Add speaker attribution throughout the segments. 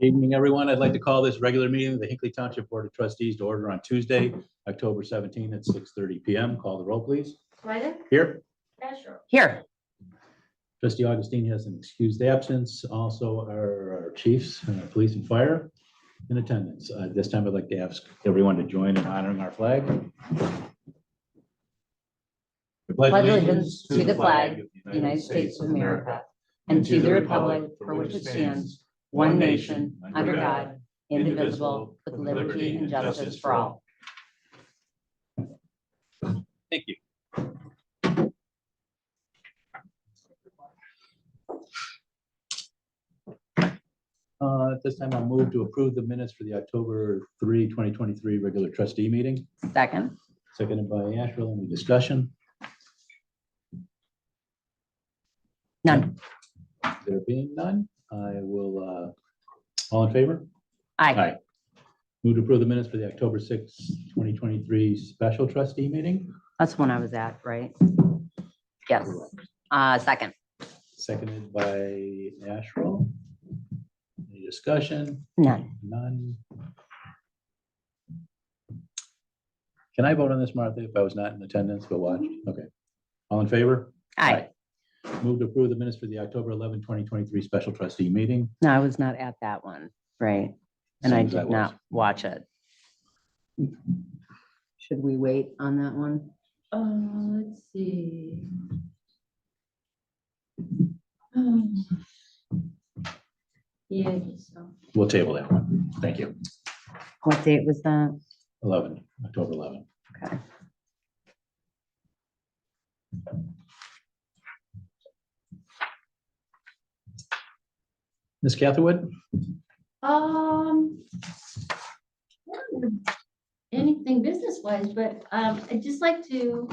Speaker 1: Good Evening, everyone. I'd like to call this regular meeting of the Hinkley Township Board of Trustees to order on Tuesday, October 17 at 6:30 PM. Call the roll, please.
Speaker 2: Snyder,
Speaker 1: Here.
Speaker 2: Asher,
Speaker 3: Here,
Speaker 1: Trustee Augustine has an excused absence. Also, our our chiefs, and our police and fire in attendance. Uh, This time, I'd like to ask everyone to join in honoring our flag. The
Speaker 3: Pledge allegiance to the flag the United States of America, and to the republic for which it stands, one nation, under God, indivisible, with liberty and justice for all.
Speaker 1: Thank you. Uh, At this time, I'll move to approve the minutes for the October 3, 2023 regular trustee meeting,
Speaker 3: Second,
Speaker 1: seconded by Asherle. Any discussion?
Speaker 3: none.
Speaker 1: There being none, I will, uh, all in favor?
Speaker 3: Aye,
Speaker 1: Move to approve the minutes for the October 6, 2023 special trustee meeting,
Speaker 3: that's one I was at, right? Yes, uh, second,
Speaker 1: seconded by Asherle. Any discussion?
Speaker 3: none.
Speaker 1: None. Can I vote on this, Martha, if I was not in attendance but watched? Okay. All in favor?
Speaker 3: Aye,
Speaker 1: Move to approve the minutes for the October 11, 2023 special trustee meeting.
Speaker 3: no, I was not at that one, right? And I
Speaker 1: Same as
Speaker 3: did
Speaker 1: was.
Speaker 3: not watch it. Should we wait on that one?
Speaker 2: uh, let's see. Um, Yeah, I guess so.
Speaker 1: We'll table that one. Thank you.
Speaker 3: What date was that?
Speaker 1: 11, October 11.
Speaker 3: Okay.
Speaker 1: Ms. Catherwood?
Speaker 2: Um. I don't have Anything business wise, but um, I'd just like to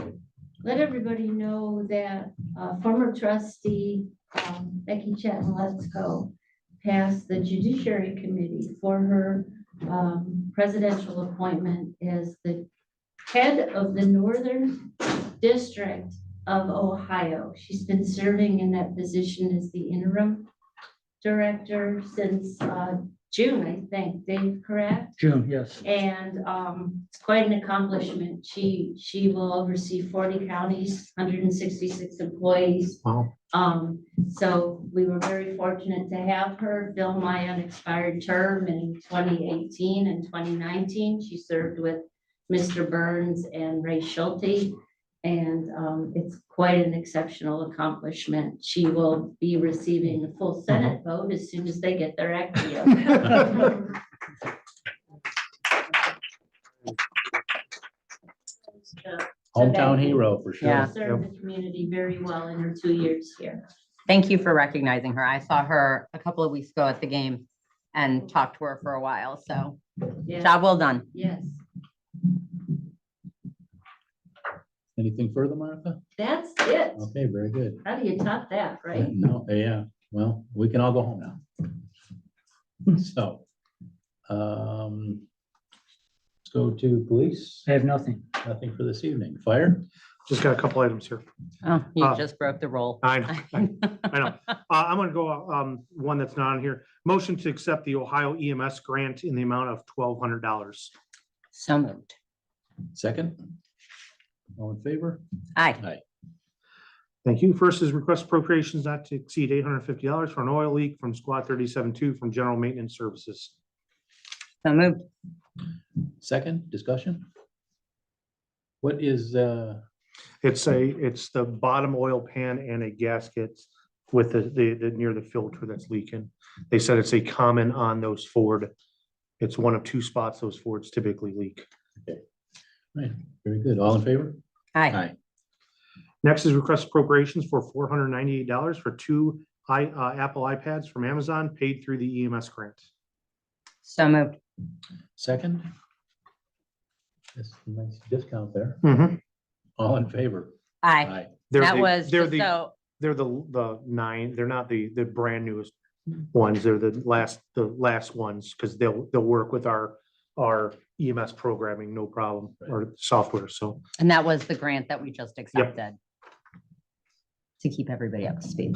Speaker 2: let everybody know that uh, former trustee um, Becky Chatton Lesko passed the judiciary committee for her um, presidential appointment as the head of the Northern District of Ohio. She's been serving in that position as the interim director since uh, June, I think, Dave, correct?
Speaker 4: June, yes.
Speaker 2: And um, it's quite an accomplishment. She, she will oversee forty counties, hundred and sixty-six employees.
Speaker 4: Wow.
Speaker 2: Um, so we were very fortunate to have her fill my unexpired term in twenty eighteen and twenty nineteen. She served with Mr. Burns and Ray Schulte. And um, it's quite an exceptional accomplishment. She will be receiving a full Senate vote as soon as they get their act together. Uh,
Speaker 1: Hometown hero for sure.
Speaker 3: Yeah.
Speaker 2: Served the community very well in her two years here.
Speaker 3: Thank you for recognizing her. I saw her a couple of weeks ago at the game and talked to her for a while, so
Speaker 2: Yeah,
Speaker 3: job well done.
Speaker 2: yes.
Speaker 1: Anything further, Martha?
Speaker 2: That's it.
Speaker 1: Okay, very good.
Speaker 2: How do you top that, right?
Speaker 1: No, yeah, well, we can all go home now. So, um, let's go to police.
Speaker 4: I have nothing.
Speaker 1: Nothing for this evening. Fire?
Speaker 5: Just got a couple items here.
Speaker 3: Oh, you
Speaker 5: Uh,
Speaker 3: just broke the roll.
Speaker 5: I know, I know. Uh, I'm gonna go, um, one that's not on here. Motion to accept the Ohio EMS grant in the amount of twelve hundred dollars.
Speaker 3: So moved.
Speaker 1: Second? All in favor?
Speaker 3: Aye,
Speaker 5: Thank you. First is request appropriations not to exceed eight hundred fifty dollars for an oil leak from squad thirty-seven two from general maintenance services.
Speaker 3: so moved.
Speaker 1: Second, discussion? What is, uh,
Speaker 5: It's a, it's the bottom oil pan and a gasket with the, the, the, near the filter that's leaking. They said it's a common on those Ford. It's one of two spots those Fords typically leak.
Speaker 1: right, very good. All in favor?
Speaker 3: Aye,
Speaker 5: Next is request appropriations for four hundred ninety-eight dollars for two i, uh, Apple iPads from Amazon paid through the EMS grant.
Speaker 3: so moved.
Speaker 1: Second? That's a nice discount there.
Speaker 5: Mhm.
Speaker 1: All in favor?
Speaker 3: Aye,
Speaker 5: They're
Speaker 3: that
Speaker 5: the-
Speaker 3: was
Speaker 5: They're
Speaker 3: just
Speaker 5: the,
Speaker 3: so,
Speaker 5: they're the, the nine, they're not the, the brand newest ones. They're the last, the last ones, because they'll, they'll work with our, our EMS programming, no problem, or software, so.
Speaker 3: and that was the grant that we just accepted. To keep everybody up to speed.